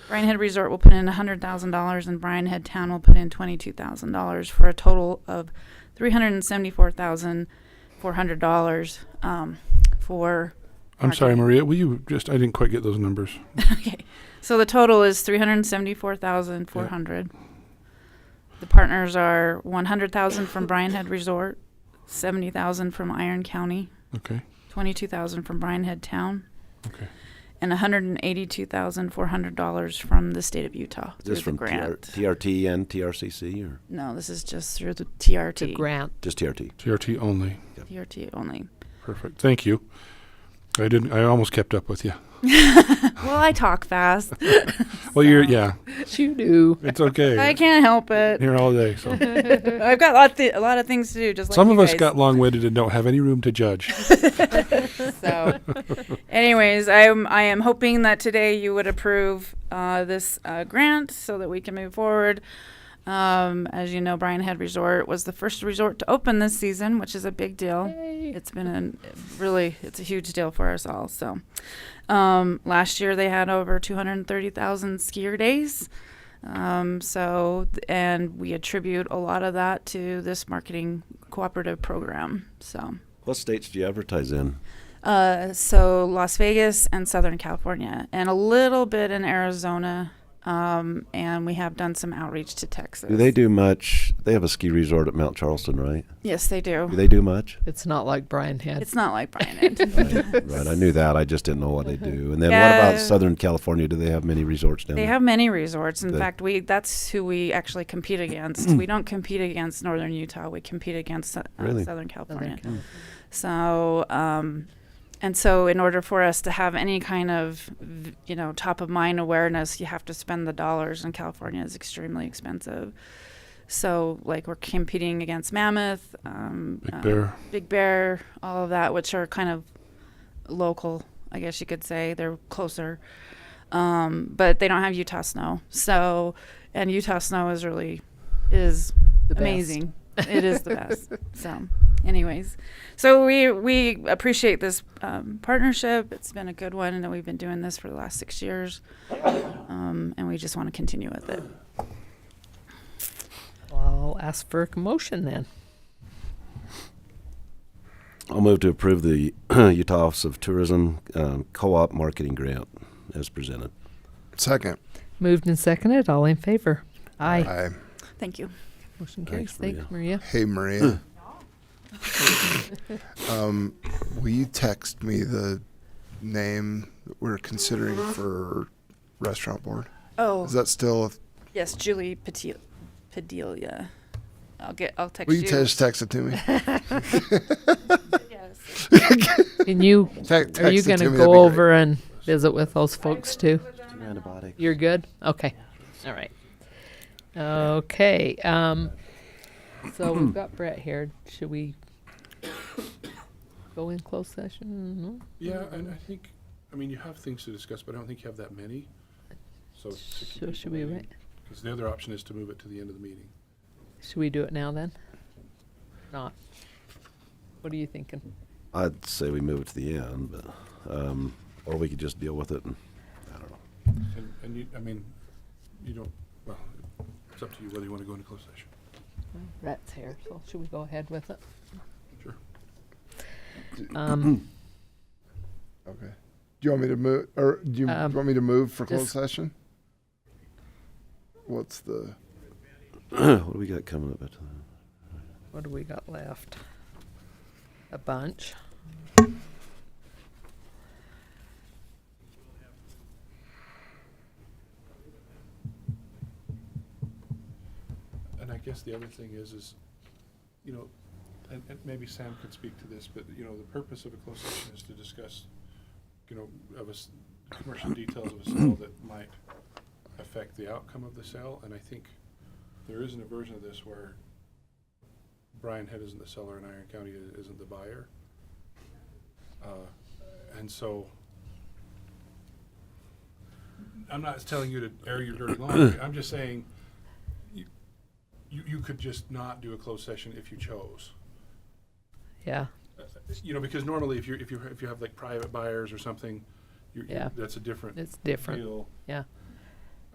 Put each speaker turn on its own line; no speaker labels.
Bryan Head Resort will put in hundred thousand dollars and Bryan Head Town will put in twenty-two thousand dollars for a total of three hundred and seventy-four thousand four hundred dollars, um, for.
I'm sorry,
marketing.
Maria. Will you just? I didn't quite get those numbers.
Okay, so the total is three hundred and seventy-four thousand four hundred. The partners are one hundred thousand from Bryan Head Resort, seventy thousand from Iron County,
Okay.
twenty-two thousand from Bryan Head Town,
Okay.
and hundred and eighty-two thousand four hundred dollars from the state of Utah
Is
through
this
the
from TR-
grant.
TRT and TRCC or
No, this is just through the
The
TRT,
grant.
just TRT?
CRT only.
TRT only.
Perfect. Thank you. I didn't. I almost kept up with you.
Well, I talk fast.
Well, you're.
So-
Yeah.
You do.
It's okay.
I can't help it.
Here all day. So.
I've got a lot, thi- a lot of things to do. Just like
Some
you
of us
guys.
got long-winded and don't have any room to judge.
So, anyways, I am I am hoping that today you would approve uh, this uh, grant so that we can move forward. Um, as you know, Bryan Head Resort was the first resort to open this season, which is a big deal. It's been a really it's a huge deal for us all. So, um, last year they had over 230,000 skier days. Um, so, th- and we attribute a lot of that to this marketing cooperative program. So.
What states do you advertise in?
Uh, so Las Vegas and Southern California, and a little bit in Arizona. Um, and we have done some outreach to Texas.
Do they do much? They have a ski resort at Mount Charleston, right?
Yes, they do.
Do they do much?
It's not like Brian had.
it's not like Brian.
right, I knew that. I just didn't know what they do. And then what
Yeah.
about Southern California? Do they have many resorts down
they
there?
have many resorts. In
They-
fact, we that's who we actually compete against. we don't compete against Northern Utah. We compete against uh,
Really?
Southern California.
California.
So, um, and so in order for us to have any kind of, v- you know, top of mind awareness, you have to spend the dollars, and California is extremely expensive. So, like, we're competing against Mammoth, um,
Big
uh,
Bear.
Big Bear, all of that, which are kind of local, I guess you could say. They're closer, um, but they don't have Utah snow. So, and Utah snow is really is
The best.
amazing. it is the best. So, anyways, so we we appreciate this um, partnership. It's been a good one, and we've been doing this for the last six years, um, and we just want to continue with it.
I'll ask for a motion then.
I'll move to approve the Utah Office of Tourism um, Co-op Marketing Grant as presented.
Second.
Moved and seconded. All in favor? Aye.
Aye.
Thank you.
Motion carries.
Thanks,
Thanks, Maria.
Hey, Maria. um, will you text me the name that we're considering for restaurant board?
Oh
Is that still?
yes, Julie Peti- Pedelia. I'll get. I'll text
Will you just text it to me?
Yes.
And you,
Te- text
are you
it
going to
me, that'd
go
be great.
over and visit with those folks too?
Antibiotic.
You're good? Okay. All right. Okay. Um, so we've got Brett here. Should we go in closed session? No?
Yeah, and I think. I mean, you have things to discuss, but I don't think you have that many. So,
So should we wait?
Because the other option is to move it to the end of the meeting.
Should we do it now then? Not. What are you thinking?
I'd say we move it to the end, but um, or we could just deal with it. And, I don't know.
And, and you, I mean, you don't. Well, it's up to you whether you want to go into closed session.
Brett's here, so should we go ahead with it?
Sure.
Um,
Okay. Do you want me to move, or do you
Um,
want me to move for closed
just-
session? What's the?
what do we got coming up? At the
what do we got left? A bunch.
And I guess the other thing is, is, you know, and, and maybe Sam could speak to this, but, you know, the purpose of a closed session is to discuss, you know, of a, s- commercial details of a sale that might affect the outcome of the sale, and I think there isn't a version of this where Brian Head isn't the seller and Iron County i- isn't the buyer. Uh, And so, I'm not telling you to air your dirty laundry, I'm just saying, you, you you could just not do a closed session if you chose.
Yeah.
Uh, You know, because normally if you, if you, if you have like private buyers or something, you, you-
Yeah.
that's a different
It's different.
deal.
Yeah.